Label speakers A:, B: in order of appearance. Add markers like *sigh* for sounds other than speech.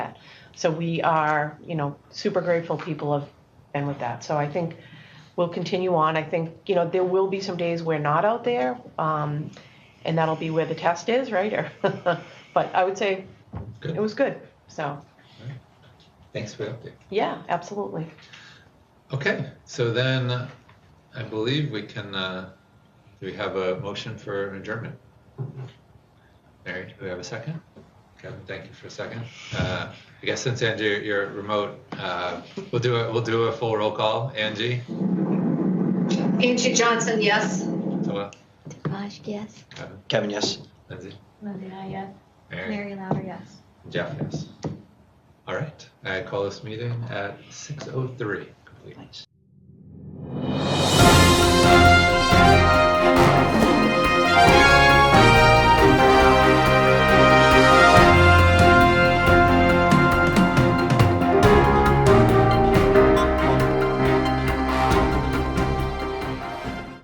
A: So we are, you know, super grateful people have been with that. So I think we'll continue on. I think, you know, there will be some days we're not out there, um, and that'll be where the test is, right? *laughs* Or, but I would say
B: Good.
A: it was good. So,
B: Thanks for the update.
A: yeah, absolutely.
B: Okay, so then I believe we can, uh, do we have a motion for an adjournment? Mary, do we have a second? Kevin, thank you for a second. Uh, I guess since Angie, you're remote, uh, we'll do a, we'll do a full roll call. Angie?
C: Angie Johnson, yes.
B: Noah,
D: Raj, yes.
B: Kevin,
E: Kevin, yes.
B: Lindsay,
D: Lydia, yes.
B: Mary,
D: Mary Louder, yes.
B: Jeff, yes. All right, I call this meeting at 6:03 complete.
E: Nice.